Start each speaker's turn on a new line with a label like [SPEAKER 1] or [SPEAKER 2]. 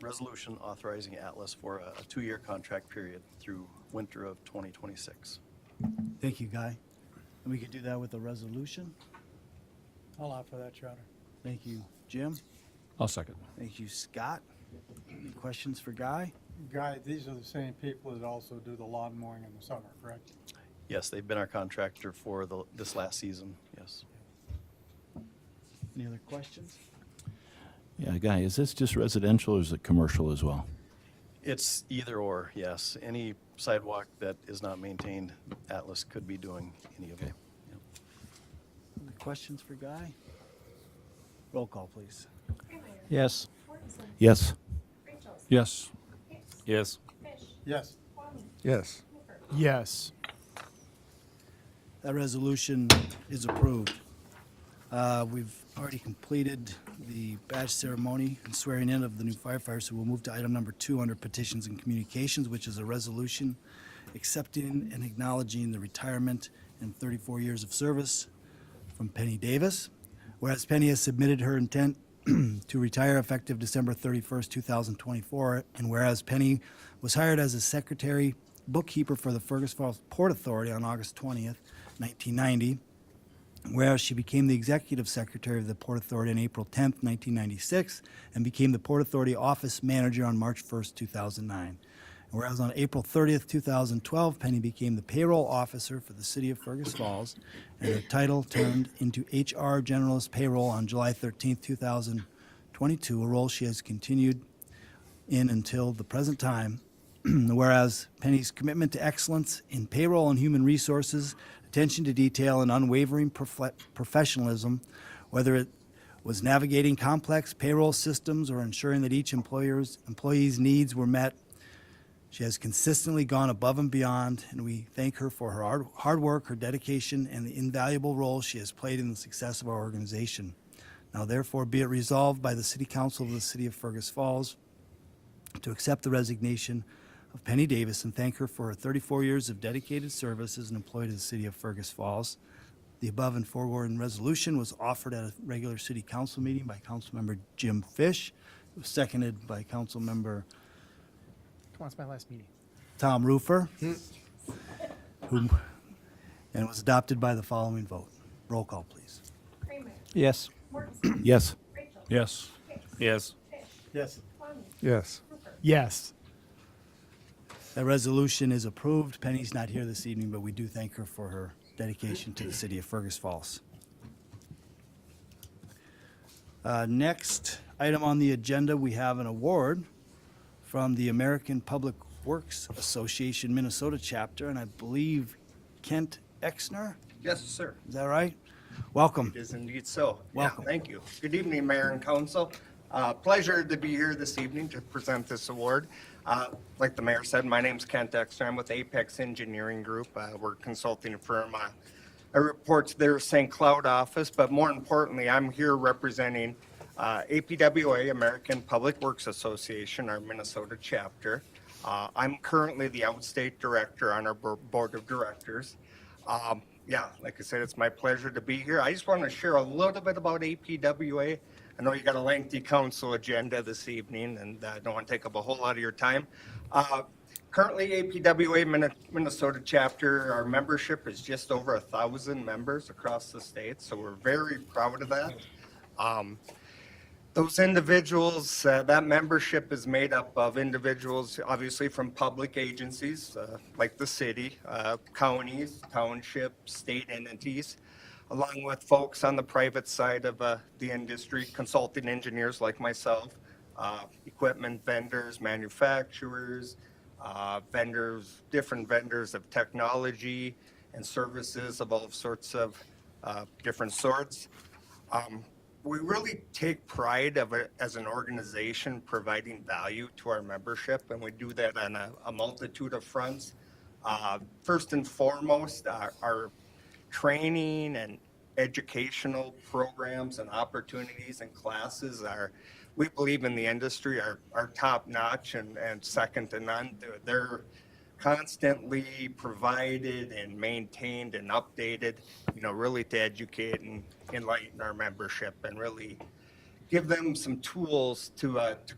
[SPEAKER 1] Resolution authorizing Atlas for a a two-year contract period through winter of 2026.
[SPEAKER 2] Thank you, Guy. And we could do that with a resolution.
[SPEAKER 3] I'll opt for that, Your Honor.
[SPEAKER 2] Thank you, Jim.
[SPEAKER 4] I'll second.
[SPEAKER 2] Thank you, Scott. Any questions for Guy?
[SPEAKER 3] Guy, these are the same people that also do the lawn mowing in the summer, correct?
[SPEAKER 1] Yes, they've been our contractor for the, this last season, yes.
[SPEAKER 2] Any other questions?
[SPEAKER 5] Yeah, Guy, is this just residential or is it commercial as well?
[SPEAKER 1] It's either or, yes. Any sidewalk that is not maintained, Atlas could be doing any of it.
[SPEAKER 5] Okay.
[SPEAKER 2] Any questions for Guy? Roll call, please.
[SPEAKER 4] Yes.
[SPEAKER 6] Mortensen.
[SPEAKER 5] Yes.
[SPEAKER 6] Rachels.
[SPEAKER 4] Yes.
[SPEAKER 6] Hicks.
[SPEAKER 7] Yes.
[SPEAKER 6] Fish.
[SPEAKER 3] Yes.
[SPEAKER 6] Kwame.
[SPEAKER 8] yes,
[SPEAKER 6] Clifford.
[SPEAKER 3] Yes.
[SPEAKER 2] That resolution is approved. Uh, We've already completed the badge ceremony and swearing in of the new firefighters, so we'll move to item number two under petitions and communications, which is a resolution accepting and acknowledging the retirement and 34 years of service from Penny Davis. Whereas Penny has submitted her intent to retire effective December 31st, 2024, and whereas Penny was hired as a secretary bookkeeper for the Fergus Falls Port Authority on August 20th, 1990, Whereas she became the executive secretary of the Port Authority on April 10, 1996, and became the Port Authority office manager on March 1, 2009. And Whereas on April 30, 2012, Penny became the payroll officer for the city of Fergus Falls, and her title turned into HR generalist payroll on July 13, 2022, a role she has continued in until the present time. Whereas Penny's commitment to excellence in payroll and human resources, attention to detail, and unwavering profe- professionalism, whether it was navigating complex payroll systems or ensuring that each employer's employee's needs were met, she has consistently gone above and beyond, and we thank her for her hard, hard work, her dedication, and the invaluable role she has played in the success of our organization. Now, therefore, be it resolved by the City Council of the City of Fergus Falls to accept the resignation of Penny Davis and thank her for her 34 years of dedicated service as an employee to the city of Fergus Falls. The above and foregoing resolution was offered at a regular city council meeting by Councilmember Jim Fish. It was seconded by Councilmember
[SPEAKER 3] Come on, it's my last meeting.
[SPEAKER 2] Tom Roofer. whom- And it was adopted by the following vote. Roll call, please.
[SPEAKER 6] Kramer.
[SPEAKER 4] Yes.
[SPEAKER 6] Mortensen.
[SPEAKER 5] Yes.
[SPEAKER 6] Rachel.
[SPEAKER 4] Yes.
[SPEAKER 6] Hicks.
[SPEAKER 7] Yes.
[SPEAKER 6] Fish.
[SPEAKER 3] Yes.
[SPEAKER 6] Kwame.
[SPEAKER 8] yes.
[SPEAKER 6] Clifford.
[SPEAKER 3] Yes.
[SPEAKER 2] That resolution is approved. Penny's not here this evening, but we do thank her for her dedication to the city of Fergus Falls. Uh, Next item on the agenda, we have an award from the American Public Works Association Minnesota chapter, and I believe Kent Exner,
[SPEAKER 9] Yes, sir.
[SPEAKER 2] is that right? Welcome.
[SPEAKER 9] It is indeed so. Yeah,
[SPEAKER 2] Welcome.
[SPEAKER 9] Thank you. Good evening, Mayor and Council. Uh, Pleasure to be here this evening to present this award. Uh, Like the mayor said, my name's Kent Exner. I'm with Apex Engineering Group. Uh, We're a consulting firm. Uh, I report to their St. Cloud office, but more importantly, I'm here representing uh, APWA, American Public Works Association, our Minnesota chapter. Uh, I'm currently the outstate director on our bo- board of directors. Um, yeah, like I said, it's my pleasure to be here. I just want to share a little bit about APWA. I know you got a lengthy council agenda this evening, and uh, I don't want to take up a whole lot of your time. Uh, currently, APWA Min- Minnesota chapter, our membership is just over a thousand members across the state, so we're very proud of that. Um, those individuals, uh, that membership is made up of individuals, obviously from public agencies, uh, like the city, uh, counties, townships, state entities, along with folks on the private side of, uh, the industry, consulting engineers like myself, uh, equipment vendors, manufacturers, uh, vendors, different vendors of technology and services of all sorts of, uh, different sorts um, we really take pride of it as an organization providing value to our membership, and we do that on a, a multitude of fronts. Uh, first and foremost, our, our training and educational programs and opportunities and classes are, we believe in the industry, are, are top notch and, and second to none. They're, they're constantly provided and maintained and updated, you know, really to educate and enlighten our membership and really give them some tools to, uh, to